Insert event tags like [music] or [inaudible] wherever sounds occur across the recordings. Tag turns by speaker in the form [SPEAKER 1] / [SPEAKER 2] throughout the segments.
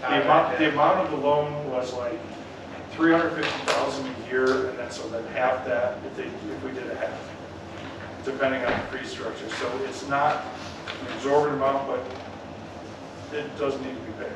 [SPEAKER 1] The amount, the amount of the loan was like three hundred fifty thousand a year, and then so then half that if they, if we did a half, depending on the fee structure. So it's not an exorbitant amount, but it does need to be paid.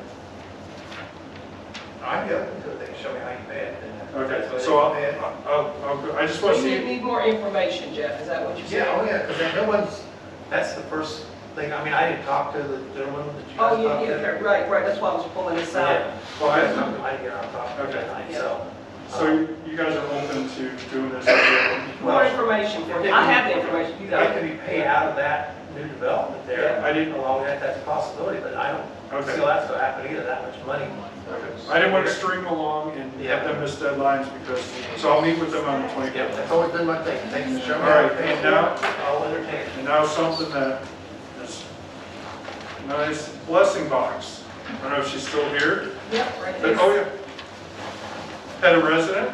[SPEAKER 2] I'm good, because they show me how you pay it. and that's
[SPEAKER 1] Okay,
[SPEAKER 2] what
[SPEAKER 1] so I'll,
[SPEAKER 2] they pay it.
[SPEAKER 1] I'll, I'll- I just want to
[SPEAKER 3] We
[SPEAKER 1] see.
[SPEAKER 3] need- need more information, Jeff, is that what you're saying?
[SPEAKER 2] Yeah, oh yeah, because no one's, that's the first thing, I mean, I didn't talk to the gentleman that you guys
[SPEAKER 3] Oh,
[SPEAKER 2] talked
[SPEAKER 3] yeah, yeah,
[SPEAKER 2] to.
[SPEAKER 3] okay, right, right, that's why I was pulling this out.
[SPEAKER 2] Yeah.
[SPEAKER 1] Well,
[SPEAKER 2] I
[SPEAKER 1] I-
[SPEAKER 2] didn't I didn't get on top of it
[SPEAKER 1] Okay.
[SPEAKER 2] tonight, so. uh,
[SPEAKER 1] So you- you guys are open to doing this? again?
[SPEAKER 3] More information for me, I have the information, you
[SPEAKER 2] It
[SPEAKER 3] got it.
[SPEAKER 2] could be paid out of that new development there.
[SPEAKER 1] Yeah, I didn't-
[SPEAKER 2] Along that, that's a possibility, but I don't
[SPEAKER 1] Okay.
[SPEAKER 2] see that's going to happen either, that much money.
[SPEAKER 1] I didn't want to string along and have them miss deadlines because, so I'll meet with them on the
[SPEAKER 2] Yeah,
[SPEAKER 1] 25th.
[SPEAKER 2] that's always been my thing, thanks for showing me.
[SPEAKER 1] All right,
[SPEAKER 2] how to pay
[SPEAKER 1] and
[SPEAKER 2] it.
[SPEAKER 1] now-
[SPEAKER 2] I'll entertain it.
[SPEAKER 1] And now something that is nice, blessing box. I don't know if she's still here,
[SPEAKER 3] Yep, right
[SPEAKER 1] but,
[SPEAKER 3] there.
[SPEAKER 1] oh yeah. Had a resident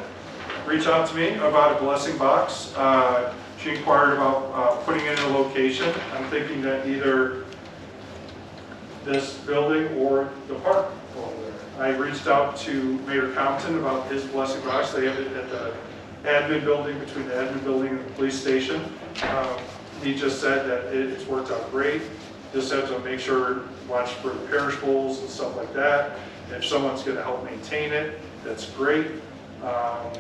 [SPEAKER 1] reach out to me about a blessing box. Uh, She inquired about uh, putting it in a location. I'm thinking that either this building or the park over there. I reached out to Mayor Compton about his blessing box. They have it at the admin building, between the admin building and the police station. Um, He just said that it- it's worked out great. Just have to make sure, watch for the perishables and stuff like that. If someone's going to help maintain it, that's great. Um,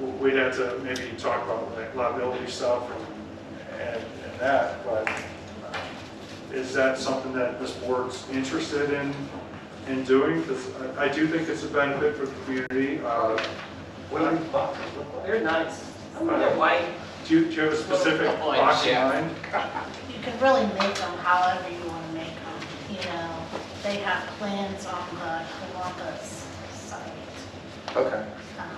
[SPEAKER 1] w- We'd have to maybe talk about like liability stuff and, and and that, but uh, is that something that this board's interested in, in doing? Because I do think it's a benefit for the community. Uh,
[SPEAKER 2] What do these boxes look like?
[SPEAKER 3] They're nice. I mean, they're white.
[SPEAKER 1] Do you, do you have a specific box in mind?
[SPEAKER 4] You can really make them however you want to make them, you know. They have plans on the Columbus site,
[SPEAKER 5] Okay,
[SPEAKER 4] um,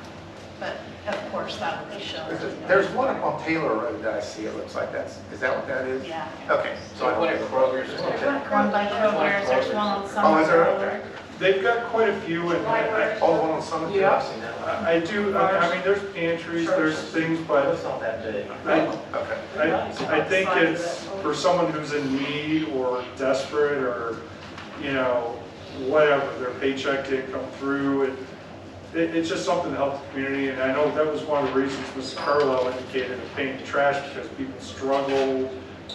[SPEAKER 4] but of course, that would be shown.
[SPEAKER 5] There's- there's one up on Taylor Road that I see, it looks like that's, is that what that is?
[SPEAKER 4] Yeah.
[SPEAKER 5] Okay. So I went
[SPEAKER 4] There's one across by Kroger's, there's one on Summer.
[SPEAKER 5] Oh, is there,
[SPEAKER 4] Road.
[SPEAKER 5] okay.
[SPEAKER 1] They've got quite a few, and I,
[SPEAKER 5] Oh, the one on Summit?
[SPEAKER 2] Yeah, I've seen that one.
[SPEAKER 1] I I do, I I mean, there's pantries, there's things,
[SPEAKER 2] But
[SPEAKER 1] but
[SPEAKER 2] it's not that big.
[SPEAKER 1] I,
[SPEAKER 5] Okay.
[SPEAKER 1] I, I think it's for someone who's in need or desperate or, you know, whatever, their paycheck didn't come through. and It, it's just something to help the community, and I know that was one of the reasons Mrs. Carlisle indicated of paying the trash because people struggle,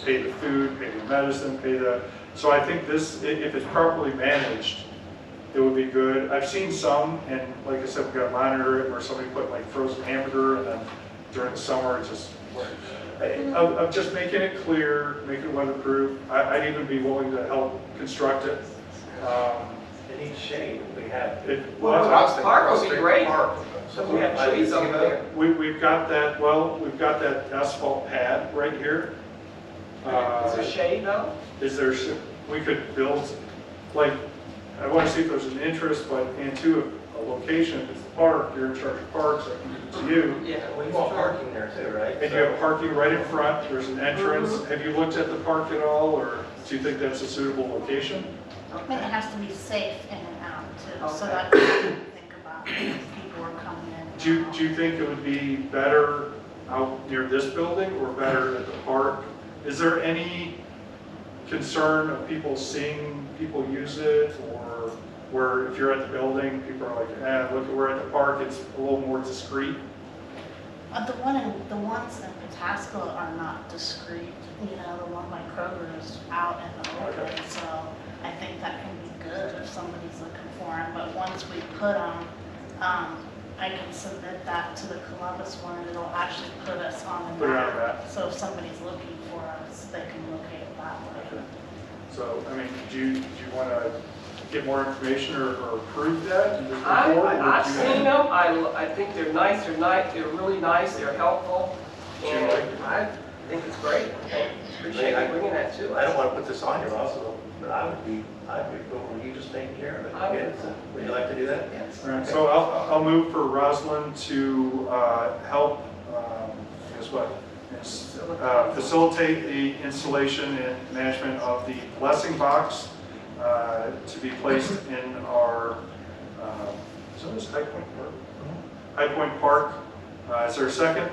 [SPEAKER 1] pay the food, pay the medicine, pay the, so I think this, i- if it's properly managed, it would be good. I've seen some, and like I said, we gotta monitor it, where somebody put like frozen hamburger, and then during the summer, it just I'm, I'm just making it clear, making it weatherproof. I, I'd even be willing to help construct it. Um,
[SPEAKER 2] It needs shade, we have.
[SPEAKER 1] It,
[SPEAKER 5] That's what I was thinking,
[SPEAKER 3] Park would
[SPEAKER 5] across
[SPEAKER 3] be
[SPEAKER 5] State
[SPEAKER 3] great.
[SPEAKER 5] Park.
[SPEAKER 3] So we have trees over there.
[SPEAKER 1] we, we've got that, well, we've got that asphalt pad right here.
[SPEAKER 3] Is there
[SPEAKER 1] Uh,
[SPEAKER 3] shade though?
[SPEAKER 1] is there, sh- we could build, like, I want to see if there's an interest, but, and two, a location, if it's a park, you're in charge of parks, I can give it to you.
[SPEAKER 3] Yeah.
[SPEAKER 2] We want parking there too, right?
[SPEAKER 1] And you have parking right in front, there's an entrance. Have you looked at the park at all, or do you think that's a suitable location?
[SPEAKER 4] I mean, it has to be safe in and out too, so
[SPEAKER 3] Okay.
[SPEAKER 4] that you think about if people are coming in.
[SPEAKER 1] Do you, do you think it would be better out near this building or better at the park? Is there any concern of people seeing people use it or where if you're at the building, people are like, eh, look, we're at the park, it's a little more discreet?
[SPEAKER 4] Uh, the one, in- the ones in Pataskla are not discreet, you know, the one by Kroger is out in the open, so I think that can be good if somebody's looking for them, but once we put them, um, I can submit that to the Columbus one, and it'll actually put us on the
[SPEAKER 1] Put it on
[SPEAKER 4] map.
[SPEAKER 1] the map.
[SPEAKER 4] So if somebody's looking for us, they can locate it that way.
[SPEAKER 1] So, I mean, do you, do you want to get more information or or approve that? and just move
[SPEAKER 3] I,
[SPEAKER 1] forward?
[SPEAKER 3] I- I've
[SPEAKER 1] Would you-
[SPEAKER 3] seen them, I, l- I think they're nice, they're nice, they're really nice, they're helpful.
[SPEAKER 1] Do you like
[SPEAKER 3] And I think it's great. I Appreciate you bringing that to
[SPEAKER 2] I don't
[SPEAKER 3] us.
[SPEAKER 2] want to put this on you also, but I would be, I'd be, cool with you just taking care of it.
[SPEAKER 3] I would.
[SPEAKER 2] Yes. Would you like to do that?
[SPEAKER 3] Yes.
[SPEAKER 1] All right, so I'll, I'll move for Rosalind to uh, help, um, guess what? Uh, Facilitate the installation and management of the blessing box uh, to be placed [laughs] in our, um, is this High Point Park? High Point Park. Uh, Is there a second?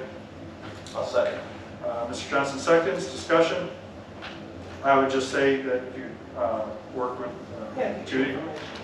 [SPEAKER 2] I'll second.
[SPEAKER 1] Uh, Mr. Johnson seconds, discussion. I would just say that if you uh, work with uh,
[SPEAKER 3] Yeah.
[SPEAKER 1] Judy,